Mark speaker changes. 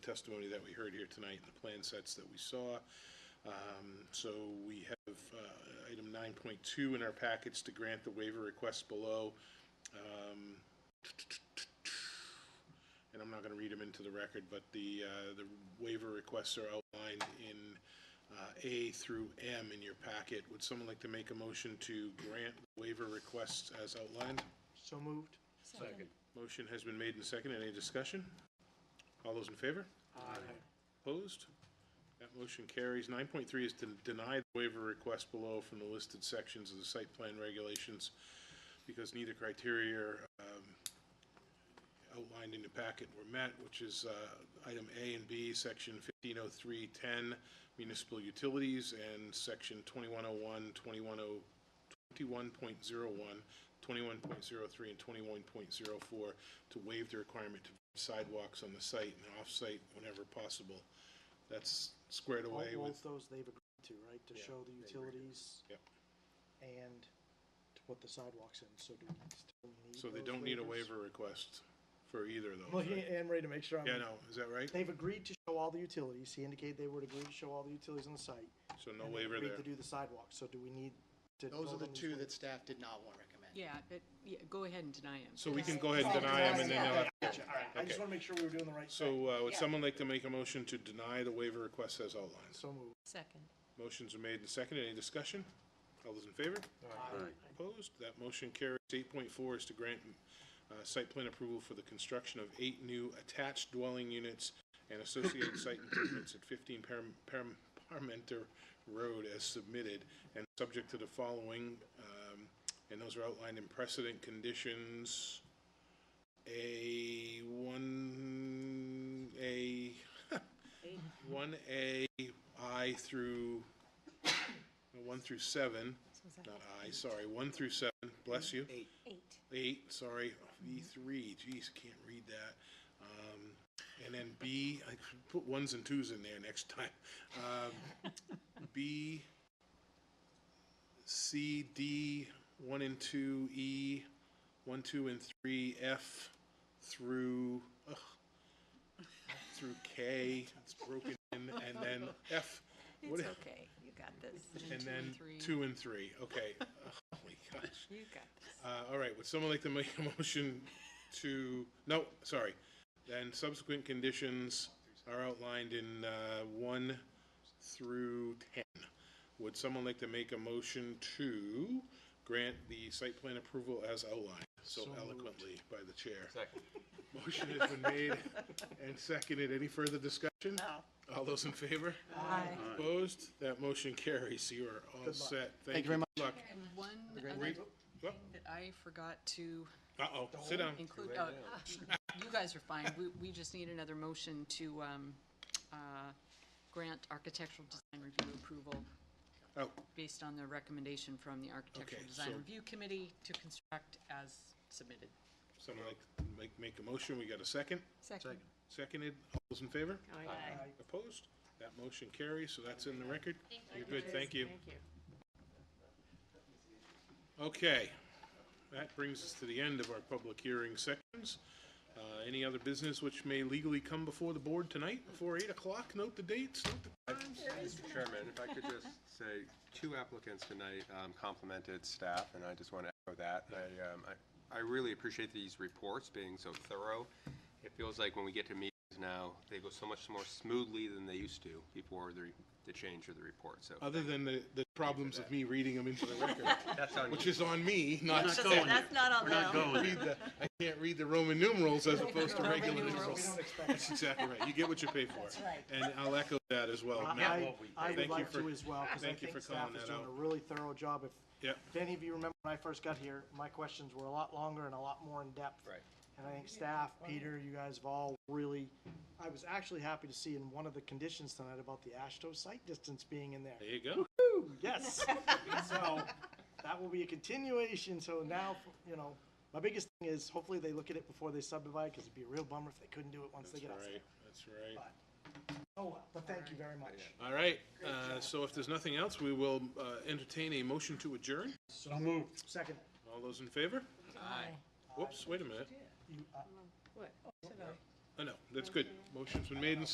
Speaker 1: testimony that we heard here tonight and the plan sets that we saw. Um, So we have uh, item 9.2 in our packets to grant the waiver requests below. Um, And I'm not going to read them into the record, but the, uh, the waiver requests are outlined in uh, A through M in your packet. Would someone like to make a motion to grant waiver requests as outlined?
Speaker 2: So moved.
Speaker 3: Second.
Speaker 1: Motion has been made and seconded. Any discussion? All those in favor?
Speaker 2: Aye.
Speaker 1: Opposed? That motion carries. Nine point three is to deny the waiver request below from the listed sections of the site plan regulations because neither criteria um, outlined in the packet were met, which is uh, item A and B, section fifteen oh three ten municipal utilities and section 2101, 21.01, 21.01, 21.03, oh, and twenty-one point zero four to waive the requirement to sidewalks on the site and off-site whenever possible. That's squared
Speaker 2: All
Speaker 1: away with,
Speaker 2: both those they've agreed to, right, to
Speaker 1: Yeah,
Speaker 2: show the
Speaker 1: they agreed to.
Speaker 2: utilities
Speaker 1: Yep.
Speaker 2: and to put the sidewalks in, so do we still need
Speaker 1: so they
Speaker 2: those
Speaker 1: don't need a
Speaker 2: waivers?
Speaker 1: waiver request for either of
Speaker 2: I'm
Speaker 1: those,
Speaker 2: Looking
Speaker 1: right?
Speaker 2: at Ann Ray to make sure I'm.
Speaker 1: Yeah, no, is that right?
Speaker 2: They've agreed to show all the utilities, he indicated they would agree to show all the utilities on the site.
Speaker 1: So no
Speaker 2: and they
Speaker 1: waiver
Speaker 2: agreed
Speaker 1: there.
Speaker 2: To do the sidewalks, so do we need to?
Speaker 4: Those are
Speaker 2: vote
Speaker 4: the
Speaker 2: on these
Speaker 4: two
Speaker 2: waivers?
Speaker 4: that staff did not want to recommend.
Speaker 3: Yeah, but, yeah, go ahead and deny him.
Speaker 1: So we can go ahead and deny them and then they'll have to
Speaker 2: Gotcha, all right, I
Speaker 1: Okay.
Speaker 2: just wanna make sure we were doing the right thing.
Speaker 1: So, uh, would someone like to make a motion to deny the waiver request as outlined?
Speaker 2: So moved.
Speaker 3: Second.
Speaker 1: Motions are made and seconded. Any discussion? All those in favor? Opposed? That motion carries. Eight point four is to grant, uh, site plan approval for the construction of eight new attached dwelling units and associated site improvements at fifteen Param- Param- Parmenter Road as submitted and subject to the following, um, and those are outlined in precedent conditions. A one, A, one A, I through, no, one through seven, not I, sorry, one through seven, bless you. Eight. Eight, sorry, E three, geez, can't read that. Um, and then B, I should put ones and twos in there next time. Um, B, C, D, one and two, E, one, two, and three, F through, ugh, through K, it's broken in, and then F. What
Speaker 5: It's
Speaker 1: if-
Speaker 5: okay, you got this,
Speaker 1: and
Speaker 3: two
Speaker 1: then
Speaker 3: and three.
Speaker 1: two and three, okay. Oh Holy gosh.
Speaker 5: you got this.
Speaker 1: Uh, all right, would someone like to make a motion to, no, sorry. Then subsequent conditions are outlined in, uh, one through ten. Would someone like to make a motion to grant the site plan approval as outlined so
Speaker 2: So moved.
Speaker 1: eloquently by the chair? Second. Motion has been made and seconded. Any further discussion? All those in favor?
Speaker 5: Aye.
Speaker 1: Opposed? That motion carries. You are all
Speaker 2: luck.
Speaker 1: set.
Speaker 4: Thank you very much.
Speaker 1: Good luck.
Speaker 3: And one other
Speaker 1: Wait,
Speaker 3: thing
Speaker 1: well,
Speaker 3: that I forgot to
Speaker 1: Uh-oh, sit down.
Speaker 3: include, oh, you guys are fine, we, we just need another motion to, um, uh, grant architectural design review approval
Speaker 1: Oh,
Speaker 3: based on the recommendation from the Architectural
Speaker 1: Okay,
Speaker 3: Design
Speaker 1: so-
Speaker 3: Review Committee to construct as submitted.
Speaker 1: someone like, to make, make a motion. We got a second?
Speaker 5: Second.
Speaker 1: Seconded. All those in favor?
Speaker 5: Aye.
Speaker 1: Opposed? That motion carries, so that's in the record. You're good, thank you.
Speaker 5: Thank you.
Speaker 1: Okay. That brings us to the end of our public hearing sections. Uh, any other business which may legally come before the board tonight, before eight o'clock? Note the dates, note the times.
Speaker 6: Mr. Chairman, if I could just say, two applicants tonight um, complimented staff, and I just want to echo that. I, um, I- I really appreciate these reports being so thorough. It feels like when we get to meetings now, they go so much more smoothly than they used to before the, the change of the report, so
Speaker 1: Other than the, the problems of me reading them into the record,
Speaker 6: that's on you.
Speaker 1: which is on me, not
Speaker 5: That's- That's not on them.
Speaker 1: read the, I can't read the Roman numerals as opposed to regular
Speaker 2: We
Speaker 1: numerals.
Speaker 2: don't expect
Speaker 1: That's exactly right. You get what you pay for. And I'll echo that as well. Matt,
Speaker 2: I, I
Speaker 1: Thank
Speaker 2: would
Speaker 1: you
Speaker 2: like
Speaker 1: for-
Speaker 2: to as well, because I
Speaker 1: thank you
Speaker 2: think
Speaker 1: for
Speaker 2: staff
Speaker 1: calling
Speaker 2: is
Speaker 1: that
Speaker 2: doing
Speaker 1: out.
Speaker 2: a really thorough job. If,
Speaker 1: Yep.
Speaker 2: if any of you remember when I first got here, my questions were a lot longer and a lot more in-depth.
Speaker 6: Right.
Speaker 2: And I think staff, Peter, you guys have all really, I was actually happy to see in one of the conditions tonight about the Ashto site distance being in there.
Speaker 1: There you go.
Speaker 2: Yes. So that will be a continuation. So now, you know, my biggest thing is hopefully they look at it before they subdivide, because it'd be a real bummer if they couldn't do it once they
Speaker 1: That's
Speaker 2: get out.
Speaker 1: right. That's right.
Speaker 2: Oh, well, but thank you very much.
Speaker 1: All right. Uh, so if there's nothing else, we will, uh, entertain a motion to adjourn.
Speaker 2: So moved. Second.
Speaker 1: All those in favor? Whoops, wait a minute.
Speaker 2: You, uh,
Speaker 5: What?
Speaker 1: Oh, no, that's good. Motion's been made and